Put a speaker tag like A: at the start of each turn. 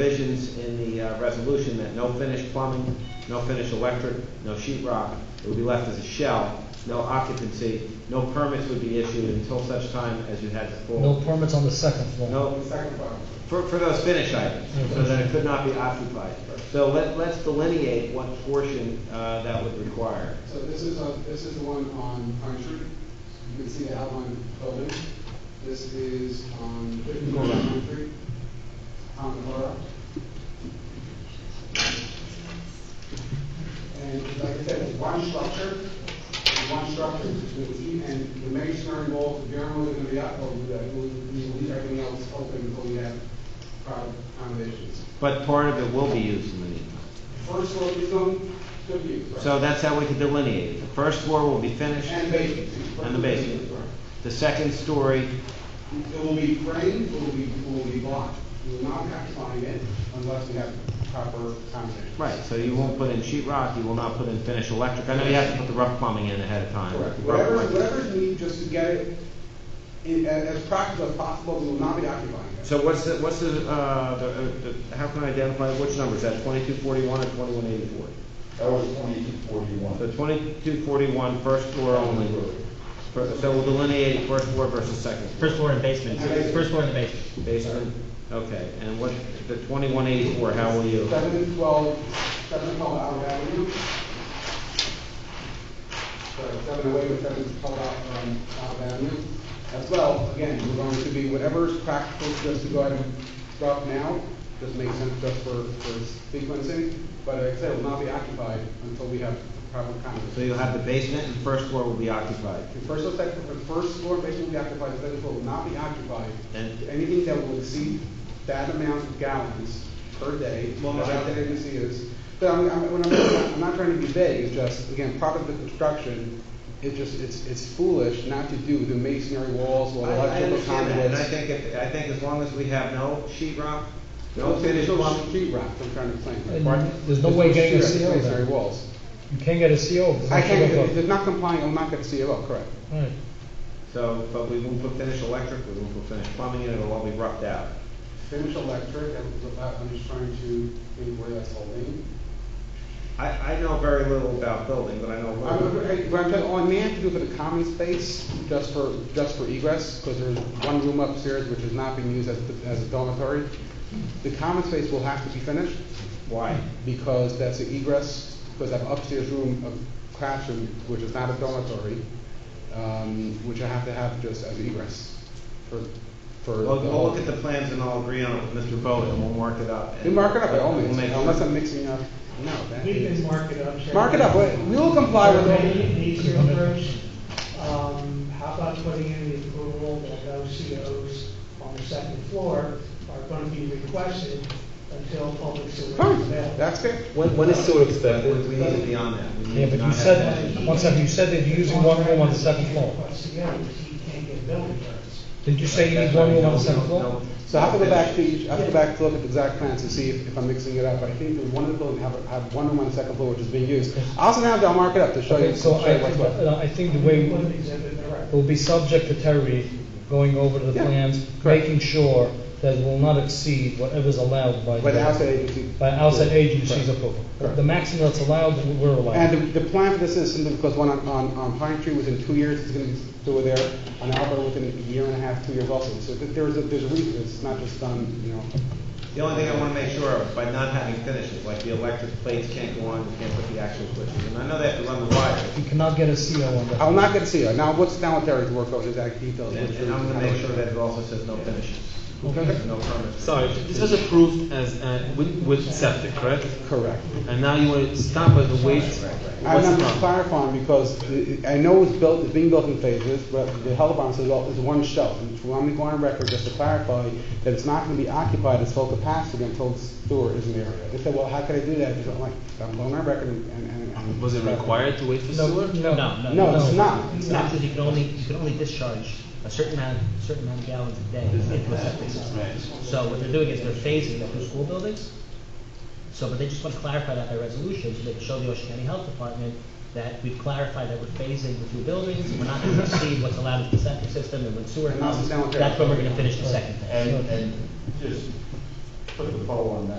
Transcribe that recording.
A: provisions in the uh, resolution that no finished plumbing, no finished electric, no sheet rock, it would be left as a shell, no occupancy, no permits would be issued until such time as you had the
B: No
A: full.
B: permits on the second floor.
A: No,
C: Second part.
A: for, for those finished items, so that it could not be occupied. So let, let's delineate what portion, uh, that would require.
C: So this is, on- this is the one on Pine Tree. You can see the outline of the building. This is on Pine Tree, on the borough. And like I said, it's one structure, it's one structure, It's e- and the masonry walls, the generally going to be up over that. We'll we'll leave everything else open until we have proper accommodations.
A: But part of it will be used in the meantime.
C: First floor is on the view. right?
A: So that's how we can delineate it. The first floor will be finished,
C: And basement.
A: And the basement.
C: Right.
A: the second story,
C: It will be framed, it will be, it will be blocked. We will not have to sign it unless we have proper accommodations.
A: right, so you won't put in sheet rock, you will not put in finished electric. I know you have to put the rough plumbing in ahead of time.
C: Correct.
A: Rough
C: Whatever,
A: electric.
C: whatever's needed, just to get it in, as, as practical as possible, we will not be occupying it.
A: So what's the, what's the, uh, the, uh, the, how can I identify which numbers? That twenty-two forty-one or twenty-one eighty-four?
D: That was twenty-two forty-one.
A: So twenty-two forty-one, first floor only. Fir- So we'll delineate first floor versus second floor.
E: First floor and basement, first floor and the basement.
A: Basement, okay, and what, the twenty-one eighty-four, how will you?
C: Seven and twelve, seven and twelve Howard Avenue. Sorry, seven away with seven and twelve out, um, Howard Avenue. As well, again, we're going to be whatever's practical, just to go ahead and drop now, just makes sense just for, for sequencing. But like I said, it will not be occupied until we have proper
A: So
C: accommodations.
A: you'll have the basement and first floor will be occupied.
C: The first or second, the first floor basement will be occupied, the second floor will not be occupied.
A: And-
C: Anything that will exceed that amount of gallons per day,
A: Well, no,
C: as
A: I-
C: out there you see is, but I'm, I'm, when I'm, I'm not trying to be vague, it's just, again, part of the construction, it just, it's, it's foolish not to do the masonry walls or
A: I I
C: electrical
A: understand that, and I
C: conduits.
A: think, if- I think as long as we have no sheet rock, no
C: No, there's
A: finished
C: no
A: plumbing.
C: sheet rock, I'm trying to explain.
B: And there's no way getting a
C: sheet rock,
B: CO
C: it's Masonry
B: then.
C: walls.
B: You can't get a CO. if it's
C: I
B: not
C: can't,
B: sugar
C: if
B: coated.
C: they're not complying, I'm not gonna CO, correct.
B: Right.
A: So, but we won't put finished electric, we won't put finished plumbing in, it'll all be roughed out.
C: Finish electric, I'm- I'm just trying to, think where that's holding.
A: I, I know very little about building, but I know a
C: I
A: little.
C: would- I- What I'm telling, all I may have to do for the common space, just for, just for egress, because there's one room upstairs which is not being used as, as a dormitory. The common space will have to be finished,
A: Why?
C: because that's the egress, because I have upstairs room, a classroom, which is not a dormitory, um, which I have to have just as egress for, for.
A: Well,
C: the
A: we'll
C: whole-
A: look at the plans and I'll agree on it with Mr. Bowden, and we'll mark it up. and-
C: We mark it up by all
A: We'll
C: means,
A: make
C: unless
A: sure.
C: I'm mixing up, no, that
F: We
C: is.
F: can mark it up. Chairman.
C: Mark it up, we we will comply with all.
F: Maybe An easier approach, um, how about putting in the approval that those COs on the second floor are going to be requested until public sewer is
C: Fine,
F: available.
C: that's it.
G: When, when is sewer
A: We,
G: expected?
A: we need to be on that. We need
B: Yeah,
A: to
B: but you
A: not have
B: said,
A: that.
B: one second, you said that you're using one room on the second floor.
F: Request together, he can't get building permits.
B: Did you say you need one room on the second
A: No,
B: floor?
A: no.
C: So I have to go back to each, I have to go back to look at the exact plans to see if, if I'm mixing it up, but I think that one of the buildings have, have one room on the second floor which is being used. I also have to mark it up to show you,
B: Okay,
C: to
B: so
C: show
B: I,
C: you what's what.
B: uh, I think the way,
F: Put an
B: it
F: exhibit in the record.
B: will be subject to Terry going over the
C: Yeah,
B: plans,
C: correct.
B: making sure that it will not exceed whatever's allowed by.
C: But the
B: the-
C: outside agency.
B: By outside agency's
C: Correct.
B: approval.
C: Correct.
B: The maximum that's allowed, we're allowed.
C: And the, the plan for this is simply because one on, on, on Pine Tree within two years is gonna be still there, on Albert within a year and a half, two years also. So th- there's a, there's a reason, it's not just done, you know.
A: The only thing I want to make sure of, by not having finishes, like the electric plates can't go on, you can't put the actual switches, and I know they have to run the wire.
B: You cannot get a CO on that.
C: I'm not gonna see it. Now, what's down with Terry's work over exact details?
A: And
C: which
A: and I'm
C: is-
A: gonna make sure that it also says no finishes,
C: Okay.
A: no permits.
G: Sorry, this was approved as, uh, with, with septic, correct?
C: Correct.
G: And now you want to stop at the waste?
C: I'm
G: What's the
C: not
G: problem?
C: clarifying because i- I know it's built, it's being built in phases, but the health department says, well, it's one shelf. And so I'm going on record just to clarify that it's not gonna be occupied its full capacity until the sewer is in the area. They said, well, how could I do that? Because I'm like, I'm going on record and, and- and.
G: Was it required to wait for
B: No,
G: sewer?
B: no.
C: No, it's not, it's not.
E: Because you can only, you can only discharge a certain amount, certain amount of gallons a day into a septic system. So what they're doing is they're phasing the two school buildings. So, but they just want to clarify that by resolution, so they can show the Ocean County Health Department that we've clarified that we're phasing the two buildings, we're not going to exceed what's allowed in the septic system, and when sewer
C: And that's
E: comes,
C: the sanitary.
E: that's when we're going to finish the second phase.
D: And, and just put the poll on that.